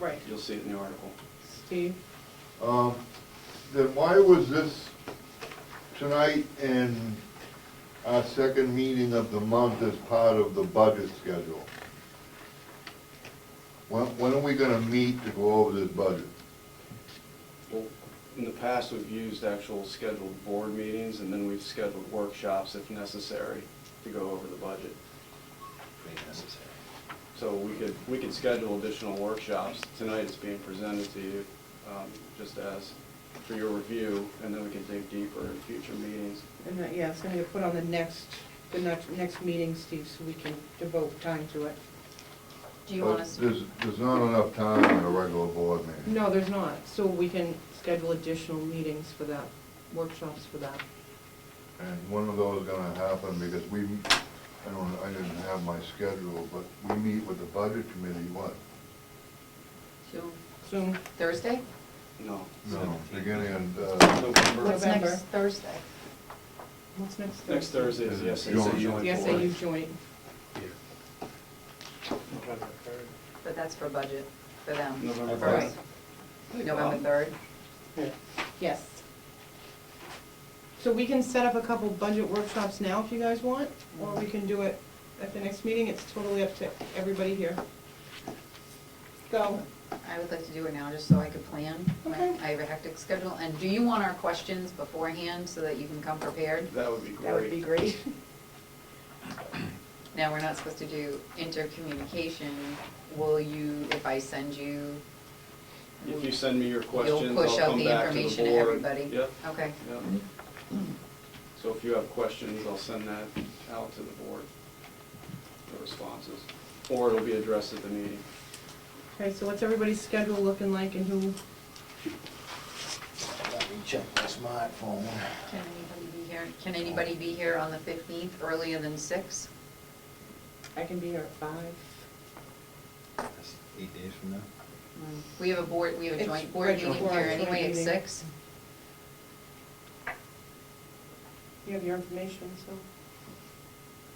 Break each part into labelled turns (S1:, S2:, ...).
S1: Right.
S2: You'll see it in the article.
S1: Steve?
S3: Um, Then why was this tonight and our second meeting of the month as part of the budget schedule? When, when are we gonna meet to go over this budget?
S2: Well, in the past, we've used actual scheduled board meetings, and then we've scheduled workshops if necessary to go over the budget. So we could, we could schedule additional workshops. Tonight it's being presented to you, um, just as for your review, and then we can dig deeper in future meetings.
S1: And that, yeah, it's gonna get put on the next, the next, next meeting, Steve, so we can devote time to it.
S4: Do you want us,
S3: There's, there's not enough time in a regular board meeting.
S5: No, there's not, so we can schedule additional meetings for that, workshops for that.
S3: And one of those gonna happen because we, I don't, I didn't have my schedule, but we meet with the budget committee, what?
S4: to
S5: Soon,
S4: Thursday?
S2: No.
S3: No, beginning in, uh,
S2: November,
S4: What's
S1: November.
S4: next Thursday?
S5: what's next Thursday?
S2: next Thursday is the SAU
S3: Joint.
S2: joint board.
S5: The SAU joint,
S4: But that's for budget, for them.
S2: November
S4: First.
S2: third.
S4: November third?
S5: yes. So we can set up a couple budget workshops now if you guys want, or we can do it at the next meeting, it's totally up to everybody here. Go.
S4: I would like to do it now, just so I could plan. My-
S5: Okay.
S4: I have a hectic schedule, and do you want our questions beforehand, so that you can come prepared?
S2: That would be great.
S1: That would be great.
S4: Now, we're not supposed to do intercommunication, will you, if I send you?
S2: If you send me your
S4: You'll
S2: questions, I'll
S4: push out
S2: come
S4: the
S2: back to the board.
S4: information to everybody?
S2: Yep,
S4: Okay,
S2: yep. So if you have questions, I'll send that out to the board, the responses, or it'll be addressed at the meeting.
S5: Okay, so what's everybody's schedule looking like and who,
S6: Let me check my smartphone.
S4: can anybody be here, can anybody be here on the fifteenth, earlier than six?
S1: I can be here at five.
S6: That's Eight days from now?
S4: We have a board, we have a
S1: It's
S4: joint board
S1: regular
S4: meeting here
S1: board
S4: anyway at
S1: meeting.
S4: six.
S1: You have your information, so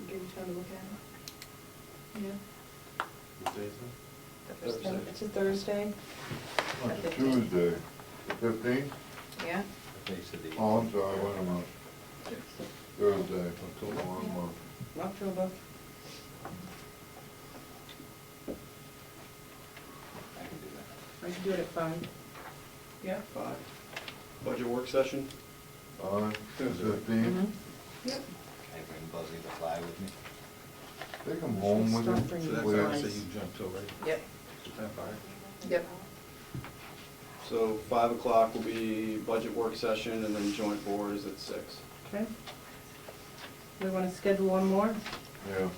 S1: give you time to look at it. Yeah.
S2: Thursday.
S1: It's a Thursday.
S3: on Tuesday, the fifteenth?
S4: Yeah?
S3: Oh, I'm sorry, wait a minute. Thursday, until one month.
S1: October. I can do it at five. Yeah?
S2: Five. Budget work session?
S3: On fifteenth,
S5: Mm-hmm.
S1: Yep.
S6: Can I bring Buzzy the fly with me?
S3: take them home with
S1: Stop
S3: you.
S1: bringing
S7: So that's
S1: Where-
S7: why
S3: Please.
S7: I say you jumped over it.
S4: Yep,
S7: That far.
S4: yep.
S2: So five o'clock will be budget work session, and then joint board is at six.
S5: okay? We wanna schedule one more?
S3: Yeah.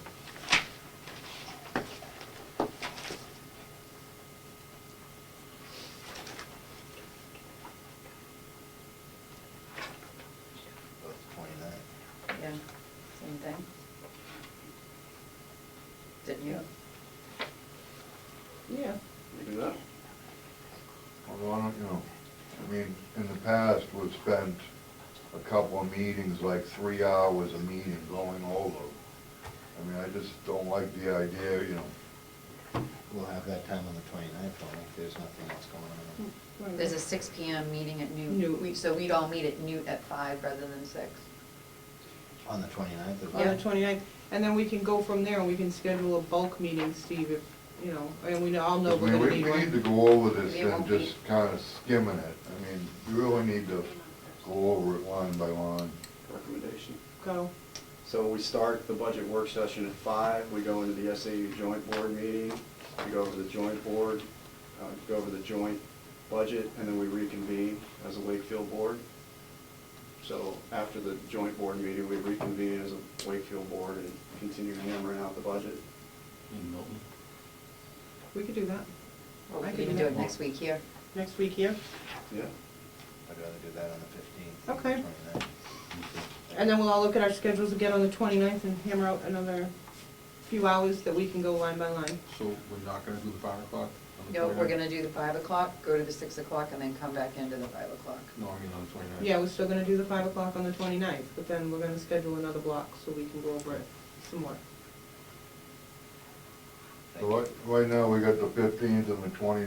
S6: About twenty-nine.
S4: Yeah, same thing. Didn't you?
S5: Yeah.
S2: We do that?
S3: Well, why don't, you know, I mean, in the past, we've spent a couple of meetings, like three hours a meeting going over. I mean, I just don't like the idea, you know.
S6: We'll have that time on the twenty-ninth, I think there's nothing else going on.
S1: Hmm.
S4: There's a six P M meeting at noon.
S5: Noon.
S4: We- So we'd all meet at noon at five rather than six.
S6: On the twenty-ninth of.
S5: on the
S4: Yeah.
S5: 29th, and then we can go from there, and we can schedule a bulk meeting, Steve, if, you know, and we all know
S3: I
S5: we're
S3: mean,
S5: gonna
S3: we,
S5: need
S3: we need to
S5: one.
S3: go over this
S4: It
S3: and
S4: won't be-
S3: just kind of skimming it. I mean, you really need to go over it line by line.
S2: Recommendation.
S5: Go,
S2: So we start the budget work session at five, we go into the SAU joint board meeting, we go over the joint board, uh, go over the joint budget, and then we reconvene as a Wakefield board. So after the joint board meeting, we reconvene as a Wakefield board and continue hammering out the budget.
S7: In Milton.
S5: we could do that,
S4: Or we
S5: I
S4: could
S5: could
S4: even
S5: do
S4: do
S5: that.
S4: it next week here.
S5: next week here,
S2: Yeah,
S6: I'd rather do that on the fifteenth.
S5: Okay. and then we'll all look at our schedules again on the 29th and hammer out another few hours that we can go line by line.
S7: So we're not gonna do the five o'clock? on the
S4: No, we're
S7: 29th?
S4: gonna do the five o'clock, go to the six o'clock, and then come back into the five o'clock.
S7: No, I mean on the twenty-ninth.
S5: Yeah, we're still gonna do the 5 o'clock on the 29th, but then we're gonna schedule another block so we can go over it some more.
S3: So right, right now, we got the fifteenth and the 29th.